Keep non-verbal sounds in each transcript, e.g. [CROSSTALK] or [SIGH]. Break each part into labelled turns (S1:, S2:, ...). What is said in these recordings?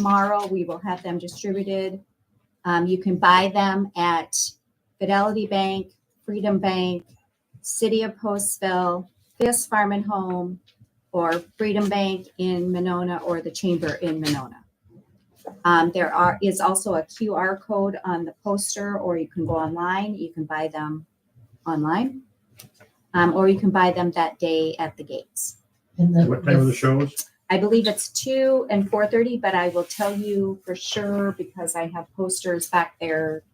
S1: tomorrow. We will have them distributed. Um, you can buy them at Fidelity Bank, Freedom Bank, City of Postville, Fisk Farm and Home, or Freedom Bank in Monona or the Chamber in Monona. Um, there are is also a QR code on the poster, or you can go online. You can buy them online, um, or you can buy them that day at the gates.
S2: And the,
S3: What time are the shows?
S1: I believe it's two and four thirty, but I will tell you for sure because I have posters back there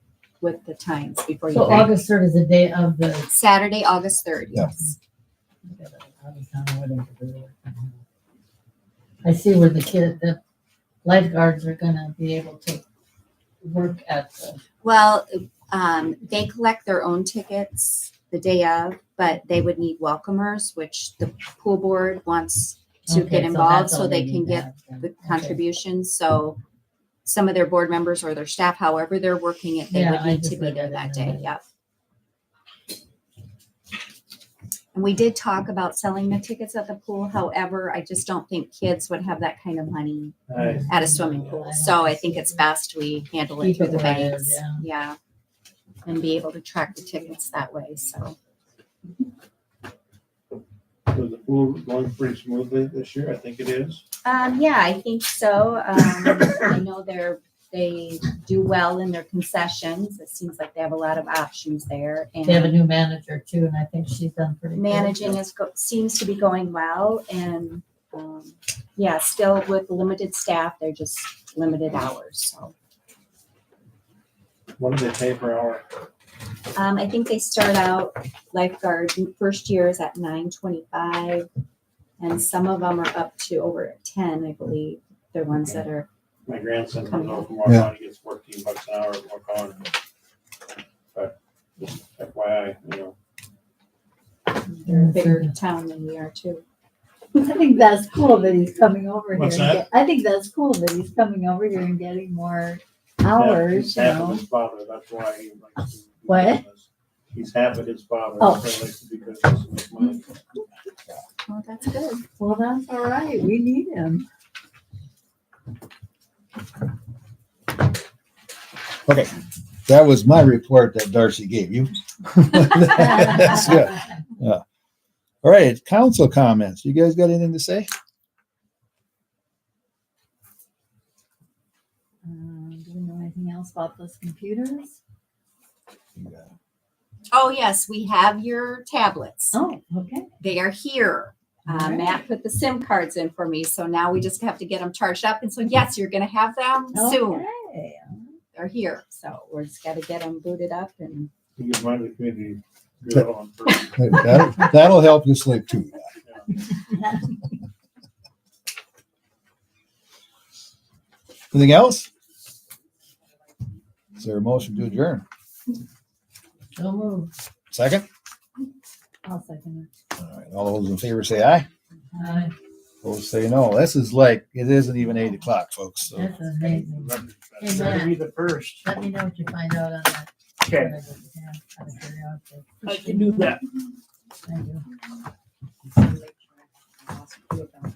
S1: with the times before you.
S2: so
S1: leave.
S2: August third is the day of the.
S1: Saturday, August third,
S4: Yeah.
S1: yes.
S2: I see where the kid, the lifeguards are gonna be able to work at the,
S1: Well, um, they collect their own tickets the day of, but they would need welcomers, which the pool board wants to
S2: Okay,
S1: get
S2: so
S1: involved
S2: that's
S1: so
S2: all
S1: they
S2: need
S1: can
S2: to
S1: get
S2: have then.
S1: the
S2: Okay.
S1: contributions, so some of their board members or their staff, however they're working it, they
S2: Yeah,
S1: would
S2: I
S1: need to
S2: just
S1: be
S2: read
S1: there that
S2: that in
S1: day,
S2: the-
S1: yep. And we did talk about selling the tickets at the pool, however, I just don't think kids would have that kind of money at a swimming
S2: Yeah, I
S1: pool,
S2: don't
S1: so I
S2: think
S1: think
S2: so.
S1: it's best we handle it
S2: Keep
S1: through
S2: it
S1: the
S2: where it
S1: banks,
S2: is, yeah.
S1: yeah. And be able to track the tickets that way, so,
S3: Was the pool going pretty smoothly this year? I think it is.
S1: um, yeah, I think so, um, I know they're they do well in their concessions. It seems like they have a lot of options there.
S2: They have a
S1: And
S2: new manager too, and I think she's done pretty. good. [LAUGHS]
S1: managing is, go- seems to be going well and, um, yeah, still with limited staff, they're just limited hours, so.
S3: What do they pay per hour?
S1: Um, I think they start out lifeguard, first year is at nine twenty-five. And some of them are up to over at ten, I believe. They're ones that are,
S3: My grandson comes home from
S4: Yeah.
S3: Waukon, he gets fourteen bucks an hour at Waukon. But just FYI, you know,
S1: they're a bigger town than we are too.
S5: I think that's cool that he's coming over here.
S3: What's
S5: and get- I think that's cool that he's coming over here and getting more hours,
S3: he's
S5: you
S3: half of
S5: know.
S3: his father, that's why he likes to. do
S5: What?
S3: business. He's half of his father,
S5: Oh.
S3: that's why he likes to do business and make money.
S1: Well, Oh, that's good.
S5: Well, that's all right. We need
S3: [LAUGHS]
S5: him.
S4: Okay, that was my report that Darcy gave you. [LAUGHS] That's good. Yeah. All right, council comments. You guys got anything to say?
S5: Um, do we know anything else about those computers?
S1: Oh, yes, we have your tablets.
S5: Oh, okay.
S1: they are here. Uh,
S5: Alright.
S1: Matt put the SIM cards in for me, so now we just have to get them charged up. And so, yes, you're going to have them soon.
S5: Okay.
S1: They're here, so we're just got to get them booted up. And
S3: He gives money to the community. Good on purpose.
S4: That'll, that'll help you sleep too. Anything else? Is there a motion to adjourn?
S2: So moved.
S4: Second?
S5: I'll second
S4: All right, all those in favor say aye.
S2: Aye.
S4: Those say no. This is like, it isn't even eight o'clock, folks. So
S2: That's amazing.
S3: That's gonna be the first.
S2: Let me know what you find out on that.
S3: Okay.
S2: Out of curiosity.
S3: I can do that.
S2: Thank you.
S5: it.